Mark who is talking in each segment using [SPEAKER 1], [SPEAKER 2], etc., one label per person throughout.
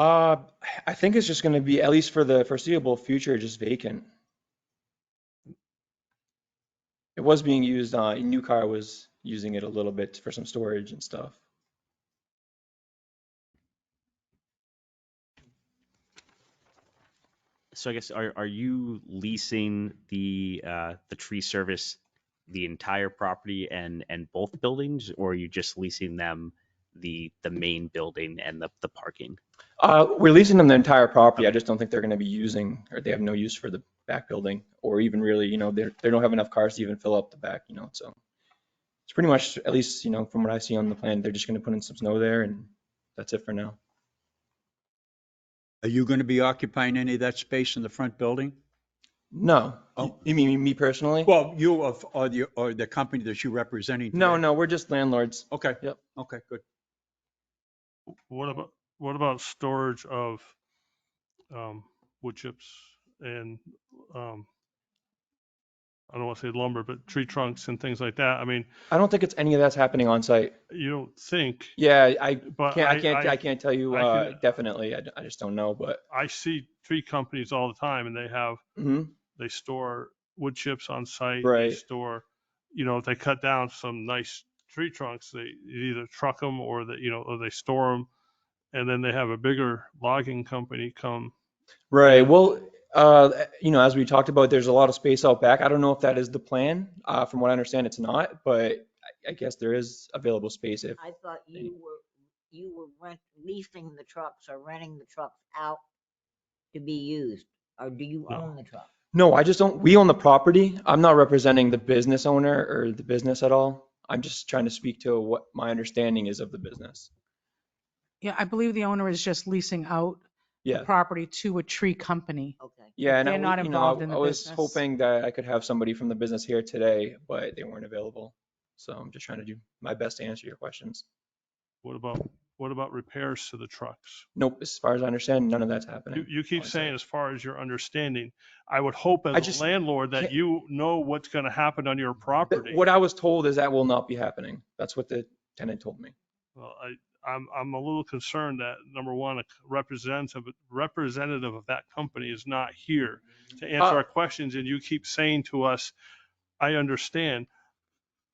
[SPEAKER 1] Uh, I think it's just going to be, at least for the foreseeable future, just vacant. It was being used, uh, New Car was using it a little bit for some storage and stuff.
[SPEAKER 2] So I guess are are you leasing the uh the tree service the entire property and and both buildings, or are you just leasing them the the main building and the the parking?
[SPEAKER 1] Uh, we're leasing them the entire property. I just don't think they're going to be using, or they have no use for the back building, or even really, you know, they they don't have enough cars to even fill up the back, you know, so. It's pretty much, at least, you know, from what I see on the plan, they're just going to put in some snow there and that's it for now.
[SPEAKER 3] Are you going to be occupying any of that space in the front building?
[SPEAKER 1] No,
[SPEAKER 3] Oh.
[SPEAKER 1] you mean me personally?
[SPEAKER 3] Well, you of- or the, or the company that you're representing?
[SPEAKER 1] No,
[SPEAKER 3] today?
[SPEAKER 1] no, we're just landlords.
[SPEAKER 3] Okay.
[SPEAKER 1] Yep.
[SPEAKER 3] Okay, good.
[SPEAKER 4] What about, what about storage of um, wood chips and, um, I don't want to say lumber, but tree trunks and things like that? I mean,
[SPEAKER 1] I don't think it's any of that's happening on site.
[SPEAKER 4] you don't think,
[SPEAKER 1] Yeah, I
[SPEAKER 4] but
[SPEAKER 1] can't, I can't, I
[SPEAKER 4] I,
[SPEAKER 1] can't tell you,
[SPEAKER 4] I
[SPEAKER 1] uh,
[SPEAKER 4] can-
[SPEAKER 1] definitely. I, d- I just don't know, but,
[SPEAKER 4] I see tree companies all the time and they have,
[SPEAKER 1] Mhm.
[SPEAKER 4] they store wood chips on site.
[SPEAKER 1] Right.
[SPEAKER 4] They store, you know, if they cut down some nice tree trunks, they either truck them or they, you know, or they store them. And then they have a bigger logging company come.
[SPEAKER 1] Right, well, uh, you know, as we talked about, there's a lot of space out back. I don't know if that is the plan. Uh, from what I understand, it's not, but I- I guess there is available space if,
[SPEAKER 5] I thought you were, you were rent, leasing the trucks or renting the trucks out to be used, or do you
[SPEAKER 4] No.
[SPEAKER 5] own the truck?
[SPEAKER 1] no, I just don't, we own the property. I'm not representing the business owner or the business at all. I'm just trying to speak to what my understanding is of the business.
[SPEAKER 6] Yeah, I believe the owner is just leasing out the
[SPEAKER 1] Yeah.
[SPEAKER 6] property to a tree company.
[SPEAKER 5] Okay.
[SPEAKER 1] Yeah, and I,
[SPEAKER 6] They're not
[SPEAKER 1] you
[SPEAKER 6] involved
[SPEAKER 1] know,
[SPEAKER 6] in
[SPEAKER 1] I
[SPEAKER 6] the
[SPEAKER 1] was
[SPEAKER 6] business.
[SPEAKER 1] hoping that I could have somebody from the business here today, but they weren't available. So I'm just trying to do my best to answer your questions.
[SPEAKER 4] What about, what about repairs to the trucks?
[SPEAKER 1] Nope, as far as I understand, none of that's
[SPEAKER 4] You,
[SPEAKER 1] happening.
[SPEAKER 4] you keep
[SPEAKER 1] on site.
[SPEAKER 4] saying as far as your understanding, I would hope
[SPEAKER 1] I
[SPEAKER 4] as
[SPEAKER 1] just
[SPEAKER 4] a landlord that
[SPEAKER 1] can't-
[SPEAKER 4] you know what's going to happen on your
[SPEAKER 1] Th-
[SPEAKER 4] property.
[SPEAKER 1] What I was told is that will not be happening. That's what the tenant told me.
[SPEAKER 4] Well, I, I'm, I'm a little concerned that, number one, a representative, representative of that company is not here to
[SPEAKER 1] Uh,
[SPEAKER 4] answer our questions, and you keep saying to us, I understand.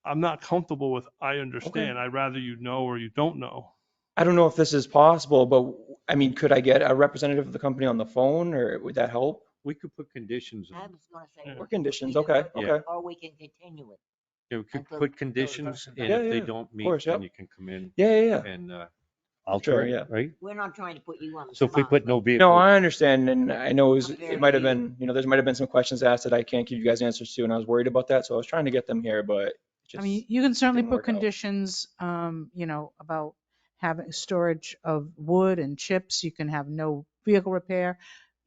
[SPEAKER 4] I'm not comfortable with, I understand. I'd rather you know or you don't know.
[SPEAKER 1] I don't know if this is possible, but I mean, could I get a representative of the company on the phone or would that help?
[SPEAKER 7] We could put conditions,
[SPEAKER 5] I
[SPEAKER 7] on
[SPEAKER 5] was gonna say.
[SPEAKER 4] Yeah.
[SPEAKER 5] we
[SPEAKER 1] Or
[SPEAKER 5] could
[SPEAKER 1] conditions,
[SPEAKER 5] either
[SPEAKER 1] okay,
[SPEAKER 5] vote
[SPEAKER 1] okay.
[SPEAKER 5] Or we can continue it.
[SPEAKER 7] yeah, we could
[SPEAKER 5] Until-
[SPEAKER 7] put conditions and
[SPEAKER 1] Yeah,
[SPEAKER 7] if they
[SPEAKER 1] yeah,
[SPEAKER 7] don't meet,
[SPEAKER 1] course,
[SPEAKER 7] then
[SPEAKER 1] yeah.
[SPEAKER 7] you can come in
[SPEAKER 1] Yeah, yeah, yeah.
[SPEAKER 7] and uh,
[SPEAKER 1] Sure,
[SPEAKER 7] alter
[SPEAKER 1] yeah.
[SPEAKER 7] it, right?
[SPEAKER 5] We're not trying to put you on the
[SPEAKER 7] So if we
[SPEAKER 5] spot,
[SPEAKER 7] put no
[SPEAKER 1] No,
[SPEAKER 7] vehicle,
[SPEAKER 1] I understand. And I know it was,
[SPEAKER 5] Okay.
[SPEAKER 1] it might have been, you know, there's might have been some questions asked that I can't give you guys answers to and I was worried about that. So I was trying to get them here, but
[SPEAKER 6] I
[SPEAKER 1] just.
[SPEAKER 6] mean, you can certainly
[SPEAKER 1] didn't
[SPEAKER 6] put
[SPEAKER 1] work out.
[SPEAKER 6] conditions, um, you know, about having storage of wood and chips. You can have no vehicle repair.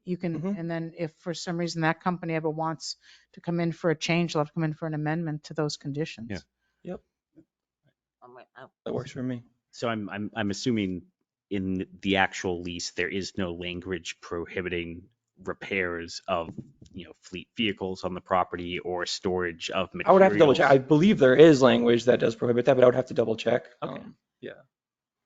[SPEAKER 6] You can,
[SPEAKER 1] Mhm.
[SPEAKER 6] and then if for some reason that company ever wants to come in for a change, they'll have to come in for an amendment to those conditions.
[SPEAKER 7] Yeah.
[SPEAKER 5] I'm like, oh,
[SPEAKER 1] That works for me.
[SPEAKER 2] So I'm I'm I'm assuming in the actual lease there is no language prohibiting repairs of you know fleet vehicles on the property or storage of
[SPEAKER 1] I
[SPEAKER 2] materials.
[SPEAKER 1] would have to double check. I believe there is language that does prohibit that, but I would have to double check.
[SPEAKER 2] Okay.
[SPEAKER 1] Um,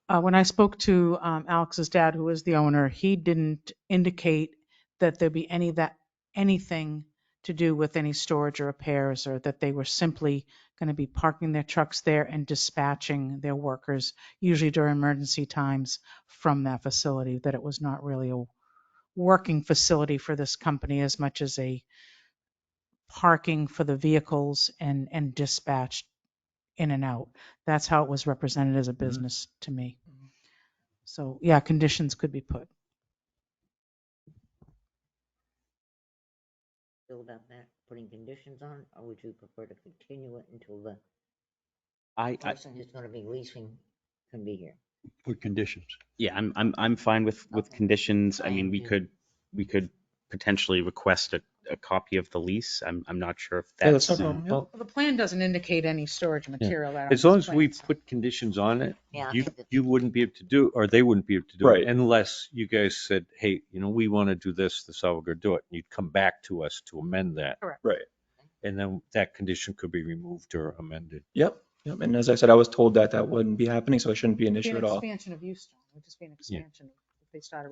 [SPEAKER 6] Uh, when I spoke to um, Alex's dad, who is the owner, he didn't indicate that there'd be any that anything to do with any storage or repairs, or that they were simply going to be parking their trucks there and dispatching their workers, usually during emergency times, from that facility. That it was not really a working facility for this company as much as a parking for the vehicles and and dispatch in and out. That's how it was represented as a business to me.
[SPEAKER 1] Mhm.
[SPEAKER 6] So, yeah, conditions could be put.
[SPEAKER 5] feel about that, putting conditions on, or would you prefer to continue it until the
[SPEAKER 2] I, I
[SPEAKER 5] person who's gonna be leasing can be here?
[SPEAKER 3] Put conditions.
[SPEAKER 2] yeah, I'm I'm I'm fine with with
[SPEAKER 5] Okay.
[SPEAKER 2] conditions. I mean,
[SPEAKER 5] Fine,
[SPEAKER 2] we
[SPEAKER 5] yeah.
[SPEAKER 2] could we could potentially request a, a copy of the lease. I'm I'm not sure if
[SPEAKER 1] Yeah, that's
[SPEAKER 2] that's
[SPEAKER 1] no problem. yeah.
[SPEAKER 7] well,
[SPEAKER 6] The plan doesn't indicate any storage material. out on
[SPEAKER 7] as long
[SPEAKER 6] these
[SPEAKER 7] as we
[SPEAKER 6] plans.
[SPEAKER 7] put conditions on it,
[SPEAKER 5] Yeah, I
[SPEAKER 7] you,
[SPEAKER 5] think that-
[SPEAKER 7] you wouldn't be able to do, or they wouldn't be able to do
[SPEAKER 1] Right.
[SPEAKER 7] it unless you guys said, hey, you know, we want to do this, this is how we're going to do it. and You'd come back to us to amend that.
[SPEAKER 6] Correct.
[SPEAKER 1] Right.
[SPEAKER 7] And then that condition could be removed or amended.
[SPEAKER 1] Yep, yep. And as I said, I was told that that wouldn't be happening, so it shouldn't be an
[SPEAKER 6] Be
[SPEAKER 1] issue
[SPEAKER 6] an
[SPEAKER 1] at all.
[SPEAKER 6] Expansion of use, John. It would just be an expansion. If they started